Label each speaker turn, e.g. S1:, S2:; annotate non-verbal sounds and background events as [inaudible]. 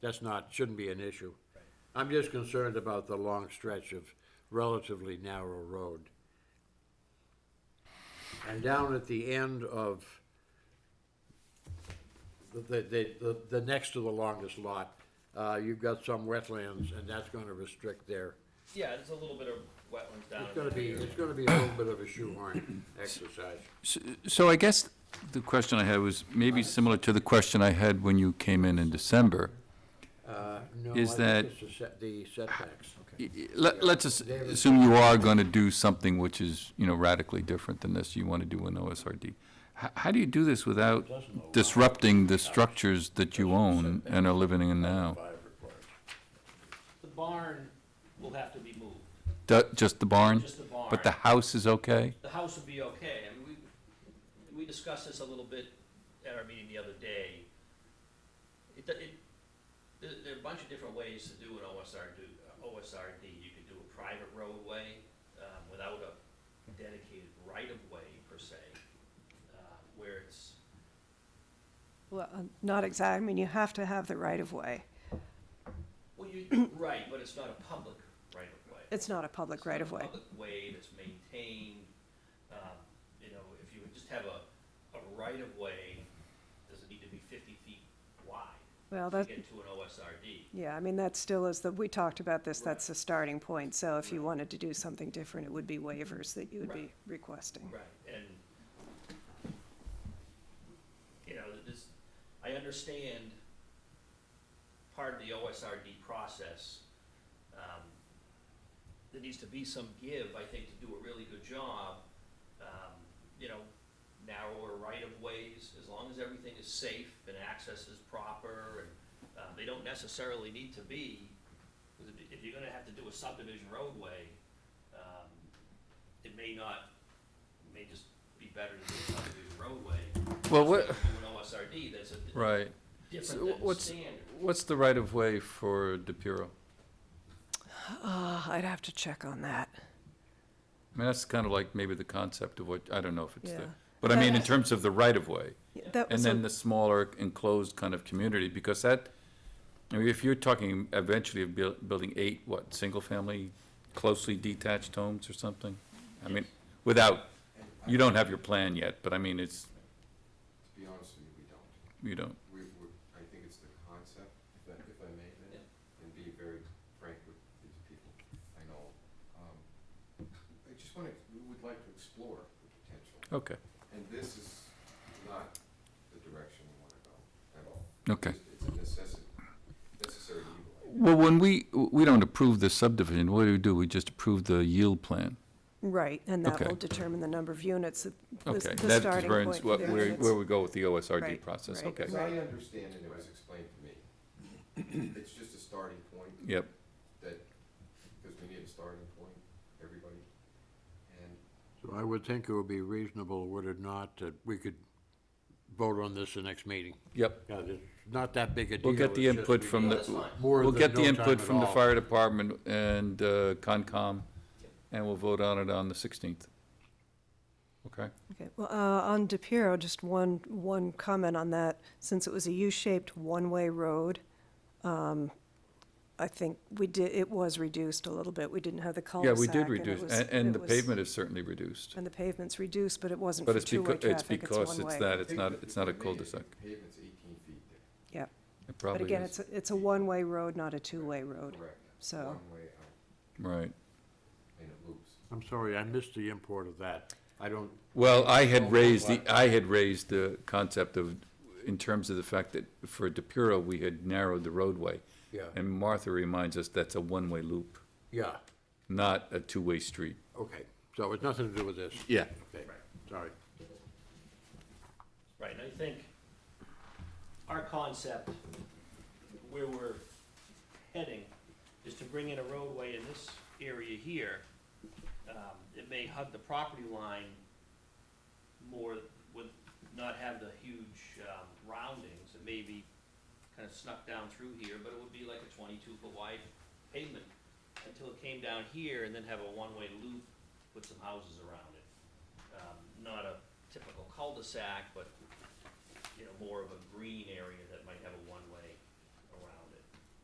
S1: that's not, shouldn't be an issue. I'm just concerned about the long stretch of relatively narrow road. And down at the end of the, the, the, the next to the longest lot, uh, you've got some wetlands, and that's gonna restrict their,
S2: Yeah, there's a little bit of wetlands down.
S1: it's
S2: in
S1: gonna
S2: that
S1: be,
S2: area.
S1: it's gonna be a little bit of a shoehorn exercise.
S3: S- So I guess the question I had was maybe similar to the question I had when you came in in December.
S1: Uh, no,
S3: Is
S1: I think
S3: that-
S1: it's the set- The setbacks.
S3: I- I- Let, let's as- assume you are gonna do something which is, you know, radically different than this you wanna do in OSRD. How, how do you do this without disrupting the structures that you own and are living in now?
S2: The barn will have to be moved,
S3: Du- Just the barn?
S2: just the barn.
S3: But the house is okay?
S2: The house would be okay. I mean, we, we discussed this a little bit at our meeting the other day. It, do- it, there, there are a bunch of different ways to do an OSRD, uh, OSRD. You could do a private roadway, um, without a dedicated right-of-way per se, uh, where it's,
S4: Well, uh, not exact, I mean, you have to have the right-of-way.
S2: well, you, [coughs] right, but it's not a public right-of-way.
S4: It's not a public
S2: It's not a
S4: right-of-way.
S2: Public way that's maintained, um, you know, if you would just have a, a right of way, does it need to be fifty feet wide
S4: Well,
S2: to
S4: that,
S2: get to an OSRD?
S4: yeah, I mean, that still is, the we talked about this,
S2: Right.
S4: that's the starting point. So if you
S2: Right.
S4: wanted to do something different, it would be waivers that you would
S2: Right.
S4: be requesting.
S2: Right, and, you know, this, I understand part of the OSRD process. um, There needs to be some give, I think, to do a really good job, um, you know, narrower right of ways, as long as everything is safe and access is proper, and, um, they don't necessarily need to be, 'cause if, if you're gonna have to do a subdivision roadway, um, it may not, it may just be better to do a subdivision roadway.
S3: Well,
S2: instead
S3: what,
S2: of Do an OSRD that's a
S3: right. So
S2: different than
S3: what's-
S2: standard.
S3: What's the right of way for DePiro?
S4: Ah, I'd have to check on that.
S3: I mean, that's kind of like maybe the concept of what, I don't know if it's
S4: Yeah.
S3: the, but I mean, in terms of the right of way.
S4: Yeah, That
S3: And
S4: was,
S3: then
S4: a-
S3: the smaller enclosed kind of community, because that, I mean, if you're talking eventually of buil- building eight, what, single-family closely detached homes or something? I mean, without, you don't have your plan yet, but I mean, it's,
S5: To be honest with you, we don't.
S3: you don't,
S5: We, we, I think it's the concept, if I, if I may, then, and be very frank with these people I know. Um, I just wanna, we would like to explore the potential,
S3: okay,
S5: and this is not the direction we wanna go at all.
S3: okay.
S5: It's- It's a necessity, necessary evil.
S3: Well, when we, we don't approve the subdivision, what do we do? We just approve the yield plan?
S4: right, and that
S3: Okay.
S4: will determine the number of units, the- the
S3: Okay,
S4: the
S3: that's
S4: starting
S3: where,
S4: point. for the
S3: where,
S4: units.
S3: where we go with the OSRD
S4: Right,
S3: process,
S4: right.
S3: okay,
S5: As I understand it, it was explained to me, it's just a starting point,
S3: yep.
S5: that, because we need a starting point, everybody, and
S1: So I would think it would be reasonable, would it not, that we could vote on this the next meeting?
S3: Yep.
S1: Yeah, it's not that big a deal.
S3: We'll get the
S1: it's just
S3: input
S1: we
S3: from
S1: need
S2: That's
S3: the,
S2: fine.
S1: more
S3: we'll
S1: than
S3: get the
S1: no time
S3: input
S1: at
S3: from the
S1: all.
S3: fire department and uh, Concom, and we'll vote on it on the 16th. Okay?
S4: Okay, well, uh, on DePiero, just one, one comment on that. Since it was a U-shaped one-way road, um, I think we did, it was reduced a little bit. We didn't have the
S3: Yeah,
S4: cul-de-sac.
S3: we did
S4: and it
S3: reduce,
S4: was-
S3: and, and
S4: it
S3: the
S4: was-
S3: pavement is certainly reduced.
S4: And the pavement's reduced, but it wasn't
S3: But
S4: for
S3: it's
S4: two-way
S3: because, it's
S4: traffic, it's
S3: because it's
S4: one-way.
S3: that, it's not,
S5: Pavement-
S3: it's not a
S5: if I may,
S3: cul-de-sac.
S5: Pavement's eighteen feet there.
S4: Yeah,
S3: It
S4: but
S3: probably
S4: again,
S3: is,
S4: it's, a- it's a one-way road, not a two-way road.
S5: Correct.
S4: So-
S5: One way out,
S3: right.
S5: and it loops.
S1: I'm sorry, I missed the import of that. I don't,
S3: Well, I had raised, the I had raised the concept of, in terms of the fact that for DePuro, we had narrowed the roadway.
S1: Yeah.
S3: And Martha reminds us that's a one-way loop,
S1: yeah,
S3: not a two-way street.
S1: okay. So it's nothing to do with this.
S3: Yeah.
S1: Okay, sorry.
S2: Right, and I think our concept, where we're heading, is to bring in a roadway in this area here. Um, It may hug the property line more, would not have the huge um, roundings, it may be kind of snuck down through here, but it would be like a twenty-two foot wide pavement until it came down here and then have a one-way loop with some houses around it. Um, Not a typical cul-de-sac, but you know, more of a green area that might have a one-way